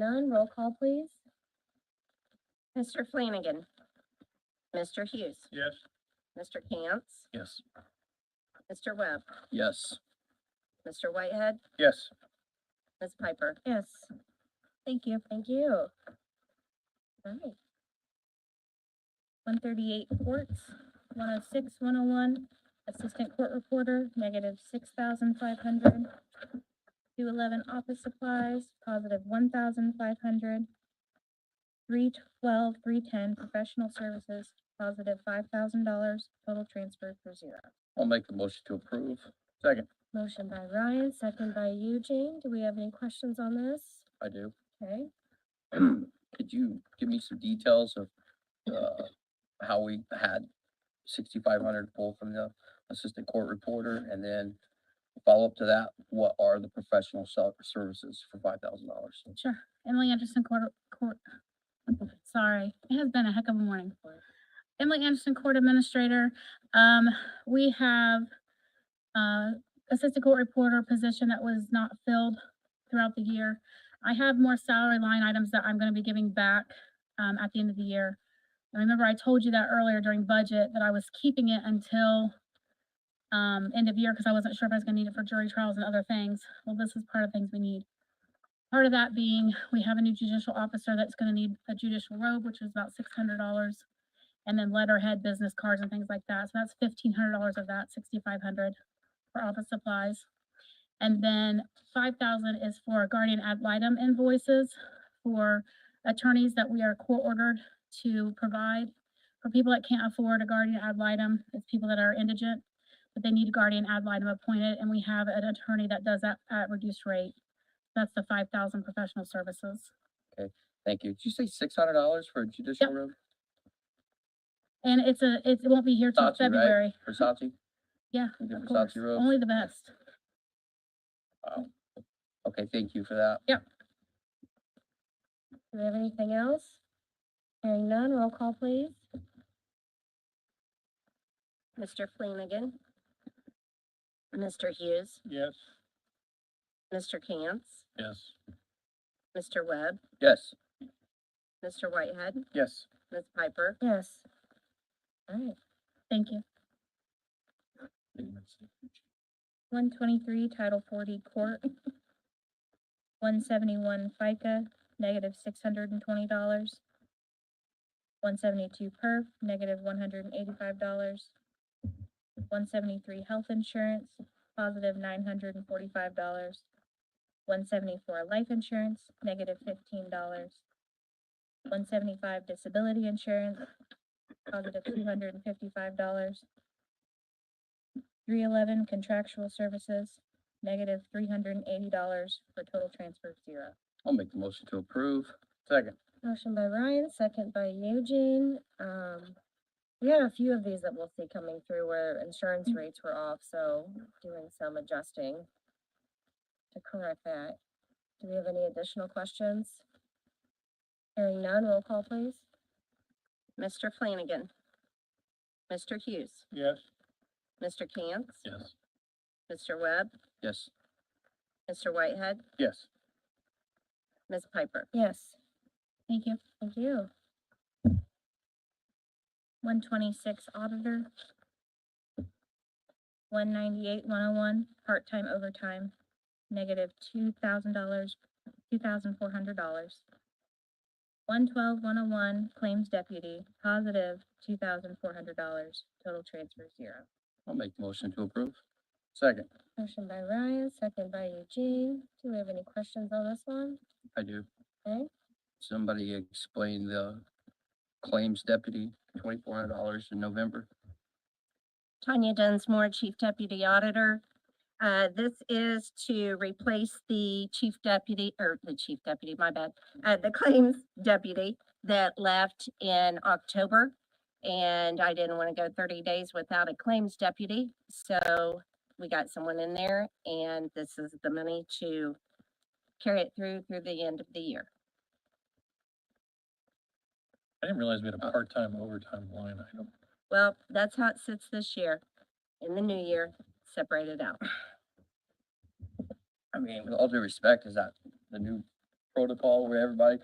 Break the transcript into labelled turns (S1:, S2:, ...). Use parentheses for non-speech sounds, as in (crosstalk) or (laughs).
S1: None, roll call please. Mr. Flanagan. Mr. Hughes.
S2: Yes.
S1: Mr. Cantz.
S2: Yes.
S1: Mr. Webb.
S2: Yes.
S1: Mr. Whitehead.
S2: Yes.
S1: Ms. Piper? Yes. Thank you. Thank you. Alright. One thirty-eight oh courts, 106, 101. assistant court reporter, negative six thousand five hundred. Two eleven office supplies, positive one thousand five hundred. Three twelve, three ten, professional services, positive five thousand dollars, total transfer for zero.
S2: I'll make the motion to approve. Second.
S1: Motion by Ryan, second by Eugene. Do we have any questions on this?
S2: I do. (clears throat)
S1: Okay.
S2: Could you give me some details of, uh, how we had sixty-five hundred pulled from the assistant court reporter? And then follow up to that, what are the professional sel- services for five thousand dollars?
S3: Sure. Emily Anderson Court, Court, sorry, it has been a heck of a morning. Emily Anderson Court Administrator, um, we have, uh, Assistant Court Reporter position that was not filled throughout the year. I have more salary line items that I'm gonna be giving back, um, at the end of the year. And remember I told you that earlier during budget, that I was keeping it until, um, end of year, because I wasn't sure if I was gonna need it for jury trials and other things. Well, this is part of things we need. Part of that being, we have a new judicial officer that's gonna need a judicial robe, which is about six hundred dollars. And then letterhead, business cards and things like that. So that's fifteen hundred dollars of that, sixty-five hundred for office supplies. And then five thousand is for guardian ad litem invoices for attorneys that we are court ordered to provide. For people that can't afford a guardian ad litem, it's people that are indigent, but they need a guardian ad litem appointed, and we have an attorney that does that at reduced rate. That's the five thousand professional services.
S2: Thank you. Did you say six hundred dollars for judicial room
S3: And it's a, it's- it won't be here till
S2: Thought you, right?
S3: February.
S2: for Saatchi?
S3: Yeah,
S2: We did
S3: of
S2: for
S3: course.
S2: Saatchi Road?
S3: Only the best.
S2: Okay, thank you for that.
S1: Do we have anything else? Hearing none, roll call please. Mr. Flanagan. Mr. Hughes,
S2: Yes.
S1: Mr. Cantz,
S2: Yes.
S1: Mr. Webb,
S2: Yes.
S1: Mr. Whitehead,
S2: Yes.
S1: Ms. Piper. Yes. All right,
S3: Thank you.
S1: one twenty-three, Title forty, court. (laughs) One seventy-one FICA, negative six hundred and twenty dollars. One seventy-two perf, negative one hundred and eighty-five dollars. One seventy-three health insurance, positive nine hundred and forty-five dollars. One seventy-four life insurance, negative fifteen dollars. One seventy-five disability insurance, positive two hundred and fifty-five dollars. Three eleven contractual services, negative three hundred and eighty dollars for total transfer of zero.
S2: I'll make the motion to approve. Second.
S1: Motion by Ryan, second by Eugene. Um, we had a few of these that we'll see coming through where insurance rates were off, so doing some adjusting to correct that. Do we have any additional questions? Hearing none, roll call please. Mr. Flanagan. Mr. Hughes.
S2: Yes.
S1: Mr. Cantz.
S2: Yes.
S1: Mr. Webb.
S2: Yes.
S1: Mr. Whitehead.
S2: Yes.
S1: Ms. Piper? Yes. Thank you. Thank you. One twenty-six auditor. One ninety-eight, one oh one, part-time overtime, negative two thousand dollars, two thousand four hundred dollars. One twelve, one oh one, claims deputy, positive two thousand four hundred dollars, total transfer zero.
S2: I'll make the motion to approve. Second.
S1: Motion by Ryan, second by Eugene. Do we have any questions on this one?
S2: I do.
S1: Okay.
S2: Somebody explain the claims deputy, twenty-four hundred dollars in November.
S1: Tanya Dunsmore, Chief Deputy Auditor. Uh, this is to replace the chief deputy, or the chief deputy, my bad, uh, the claims deputy that left in October. And I didn't want to go thirty days without a claims deputy, so we got someone in there and this is the money to carry it through, through the end of the year.
S4: I didn't realize we had
S2: Uh,
S4: a part-time overtime line item.
S1: Well, that's how it sits this year. In the new year, separate it out.
S2: I mean, with all due respect, is that the new protocol where everybody